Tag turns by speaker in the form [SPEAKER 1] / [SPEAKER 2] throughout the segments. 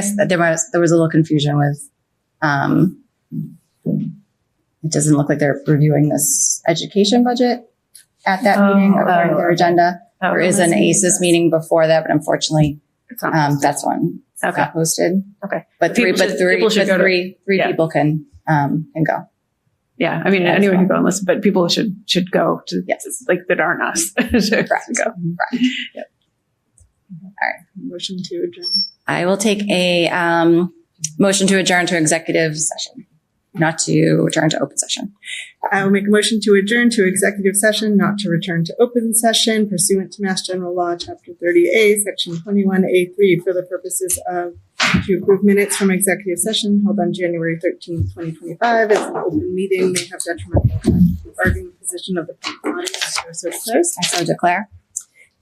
[SPEAKER 1] guess that there was there was a little confusion with. Um, it doesn't look like they're reviewing this education budget at that
[SPEAKER 2] Oh,
[SPEAKER 1] meeting according to their
[SPEAKER 2] oh.
[SPEAKER 1] agenda. There is an ACES meeting before that, but unfortunately,
[SPEAKER 2] It's not-
[SPEAKER 1] um, that's one
[SPEAKER 2] Okay.
[SPEAKER 1] not posted.
[SPEAKER 2] Okay.
[SPEAKER 1] but three,
[SPEAKER 2] People
[SPEAKER 1] but
[SPEAKER 2] should-
[SPEAKER 1] three,
[SPEAKER 2] people should
[SPEAKER 1] but
[SPEAKER 2] go to-
[SPEAKER 1] three, three
[SPEAKER 2] yeah.
[SPEAKER 1] people can um can go.
[SPEAKER 2] Yeah. I mean,
[SPEAKER 1] Yeah, it's
[SPEAKER 2] anyone
[SPEAKER 1] fine.
[SPEAKER 2] can go and listen, but people should, should go to,
[SPEAKER 1] Yes.
[SPEAKER 2] like that aren't us. Should
[SPEAKER 1] Correct.
[SPEAKER 2] Go.
[SPEAKER 1] Correct.
[SPEAKER 2] Motion to adjourn.
[SPEAKER 1] I will take a um motion to adjourn to executive session, not to adjourn to open session.
[SPEAKER 3] I will make a motion to adjourn to executive session, not to return to open session pursuant to Mass General Law, Chapter 30A, Section 21A3, for the purposes of to approve minutes from executive session held on January 13, 2025. As an open meeting may have detrimental effect on the bargaining position of the audience or so declares,
[SPEAKER 1] I so declare.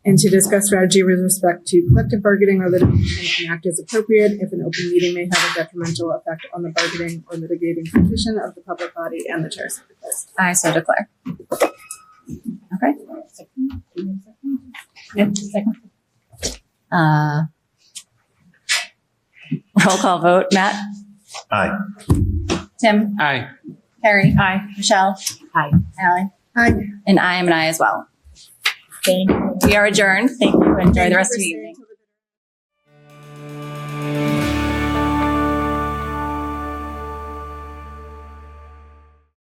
[SPEAKER 3] and to discuss strategy with respect to collective bargaining or litigation and act as appropriate if an open meeting may have a detrimental effect on the bargaining or litigating position of the public body and the chair so declares.
[SPEAKER 1] I so declare. Okay. Uh, roll call vote. Matt,
[SPEAKER 4] Aye.
[SPEAKER 1] Tim,
[SPEAKER 5] Aye.
[SPEAKER 1] Harry,
[SPEAKER 2] Aye.
[SPEAKER 1] Michelle. Hi. Allie.
[SPEAKER 3] Aye.
[SPEAKER 1] And I am an I as well. Thank you. We are adjourned. Thank you. Enjoy the rest of your evening.